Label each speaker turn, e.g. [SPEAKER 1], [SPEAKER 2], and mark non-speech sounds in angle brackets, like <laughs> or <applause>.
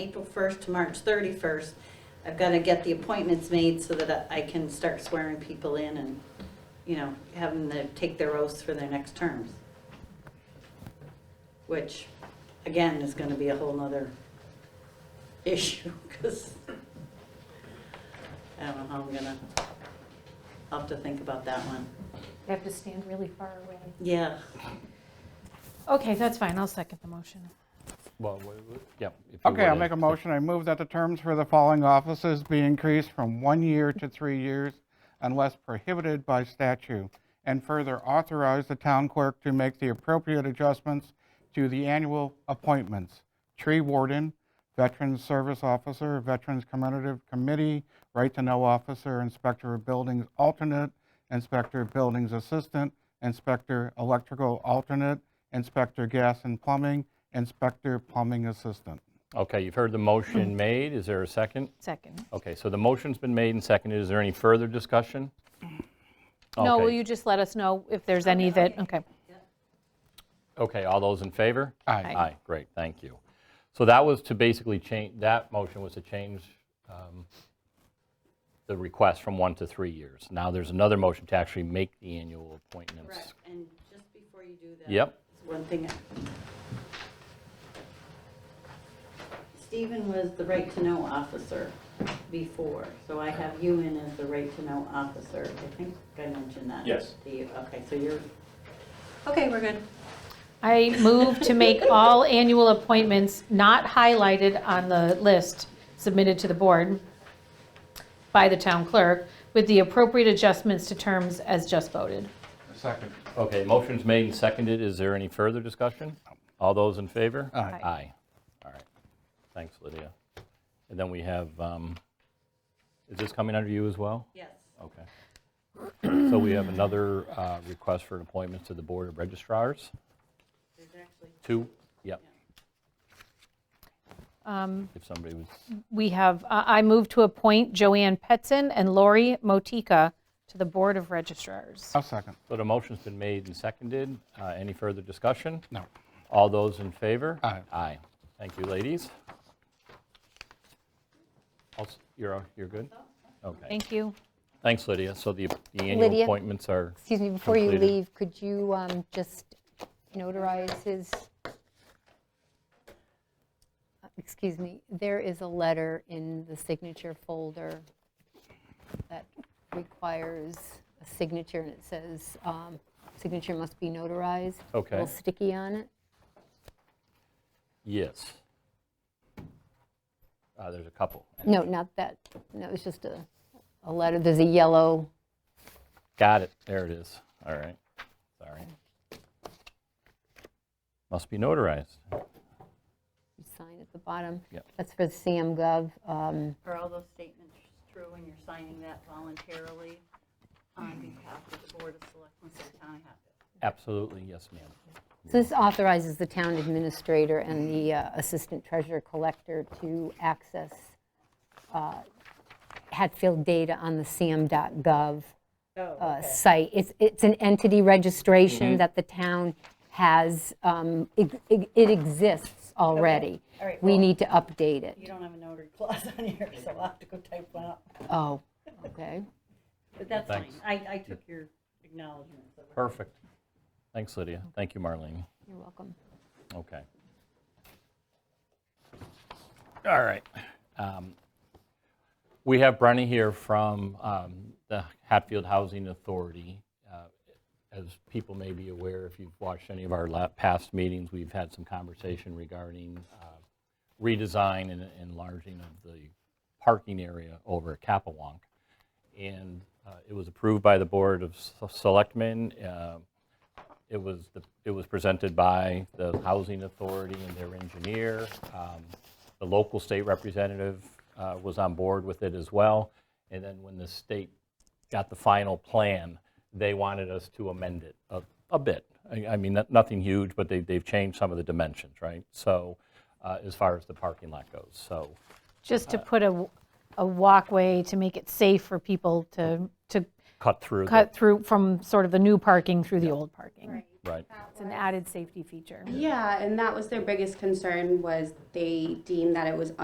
[SPEAKER 1] April 1st to March 31st. I've got to get the appointments made so that I can start swearing people in and, you know, have them to take their oaths for their next terms. Which, again, is going to be a whole nother <laughs> issue because I don't know how I'm gonna, I'll have to think about that one.
[SPEAKER 2] They have to stand really far away.
[SPEAKER 1] Yeah.
[SPEAKER 2] Okay, that's fine, I'll second the motion.
[SPEAKER 3] Well, w- w- yeah. if you
[SPEAKER 4] Okay, I'll
[SPEAKER 3] would,
[SPEAKER 4] make a
[SPEAKER 3] uh,
[SPEAKER 4] motion. I move that the terms for the following offices be increased from one year to three years unless prohibited by statute, and further authorize the town clerk to make the appropriate adjustments to the annual appointments. Tree warden, Veterans Service Officer, Veterans Commemorative Committee, Right to Know Officer, Inspector of Buildings Alternate, Inspector of Buildings Assistant, Inspector Electrical Alternate, Inspector Gas and Plumbing, Inspector Plumbing Assistant.
[SPEAKER 3] Okay, you've heard the
[SPEAKER 4] <clears throat>
[SPEAKER 3] motion made. Is there a second?
[SPEAKER 2] Second.
[SPEAKER 3] Okay, so the motion's been made and seconded. Is there any further discussion?
[SPEAKER 2] No, will
[SPEAKER 3] Okay.
[SPEAKER 2] you just let us know if there's any that, okay.
[SPEAKER 3] Okay, all those in favor?
[SPEAKER 4] Aye.
[SPEAKER 3] Aye, great, thank you. So that was to basically change, that motion was to change um, the request from one to three years. Now there's another motion to actually make the annual appointments.
[SPEAKER 1] And just before you do that.
[SPEAKER 3] Yep.
[SPEAKER 1] it's One thing. Stephen was the right to know officer before, so I have you in as the right to know officer. I think I mentioned that.
[SPEAKER 3] Yes.
[SPEAKER 1] To you, okay, so you're, okay, we're good.
[SPEAKER 2] I move to <laughs> make all annual appointments not highlighted on the list submitted to the board by the town clerk with the appropriate adjustments to terms as just voted.
[SPEAKER 4] Second.
[SPEAKER 3] Okay, motion's made and seconded. Is there any further discussion? All those in favor?
[SPEAKER 4] Aye.
[SPEAKER 2] Aye.
[SPEAKER 3] Aye. All right. Thanks, Lydia. And then we have, um, is this coming under you as well?
[SPEAKER 1] Yes.
[SPEAKER 3] Okay. So we have another uh, request for an appointment to the Board of registrars.
[SPEAKER 1] There's actually,
[SPEAKER 3] Two, yep,
[SPEAKER 2] Um,
[SPEAKER 3] if somebody was,
[SPEAKER 2] We have, uh, I move to appoint Joanne Petson and Lori Motica to the Board of registrars.
[SPEAKER 4] I'll second.
[SPEAKER 3] so the motion's been made and seconded. Uh, Any further discussion?
[SPEAKER 4] No.
[SPEAKER 3] All those in favor?
[SPEAKER 4] Aye.
[SPEAKER 3] Aye. Thank you, ladies. Also- You're, you're good? Okay.
[SPEAKER 2] Thank you.
[SPEAKER 3] Thanks, Lydia. So the the annual
[SPEAKER 5] Lydia?
[SPEAKER 3] appointments are,
[SPEAKER 5] Excuse me, before you
[SPEAKER 3] Completed.
[SPEAKER 5] leave, could you um, just notarize his, excuse me, there is a letter in the signature folder that requires a signature, and it says, um, signature must be notarized.
[SPEAKER 3] Okay.
[SPEAKER 5] A little sticky on it.
[SPEAKER 3] yes. Uh, There's a couple.
[SPEAKER 5] No, not that, no, it's just a, a letter, there's a yellow,
[SPEAKER 3] Got it, there it is. All right, sorry. Must be notarized.
[SPEAKER 5] sign at the bottom.
[SPEAKER 3] Yep.
[SPEAKER 5] That's for Sam Gov. um,
[SPEAKER 1] are all those statements true and you're signing that voluntarily on behalf of the Board of Selectmen of the Town of Hatfield?
[SPEAKER 3] Absolutely, yes, ma'am.
[SPEAKER 5] So This authorizes the town administrator and the uh, assistant treasurer collector to access uh, Hatfield data on the sam.gov
[SPEAKER 1] Oh,
[SPEAKER 5] uh, site. It's, it's an entity
[SPEAKER 1] Mm-hmm.
[SPEAKER 5] registration that the town has, um, it it- it exists already.
[SPEAKER 1] all right,
[SPEAKER 5] We
[SPEAKER 1] well-
[SPEAKER 5] need to update it.
[SPEAKER 1] You don't have a notary clause <laughs> on here, so I'll have to go type one up.
[SPEAKER 5] Oh, okay.
[SPEAKER 1] But that's fine.
[SPEAKER 3] Thanks.
[SPEAKER 1] I, I took your acknowledgement. so we're-
[SPEAKER 3] Perfect. Thanks, Lydia. Thank you, Marlene.
[SPEAKER 5] You're welcome.
[SPEAKER 3] Okay. All right. Um, We have Brenny here from um, the Hatfield Housing Authority. Uh, As people may be aware, if you've watched any of our la- past meetings, we've had some conversation regarding uh, redesign and enlarging of the parking area over at Capewalk. And uh, it was approved by the Board of S- Selectmen. uh, it was, the- it was presented by the Housing Authority and their engineer. Um, The local state representative uh, was on board with it as well. And then when the state got the final plan, they wanted us to amend it a- a bit. I I mean, not- nothing huge, but they- they've changed some of the dimensions, right? So uh, as far as the parking lot goes, so,
[SPEAKER 2] Just to put a, a walkway to make it safe for people to, to
[SPEAKER 3] cut through. the-
[SPEAKER 2] cut through from sort of the new parking through the old parking.
[SPEAKER 3] Right,
[SPEAKER 2] It's an added safety feature.
[SPEAKER 6] Yeah, and that was their biggest concern was they deemed that it was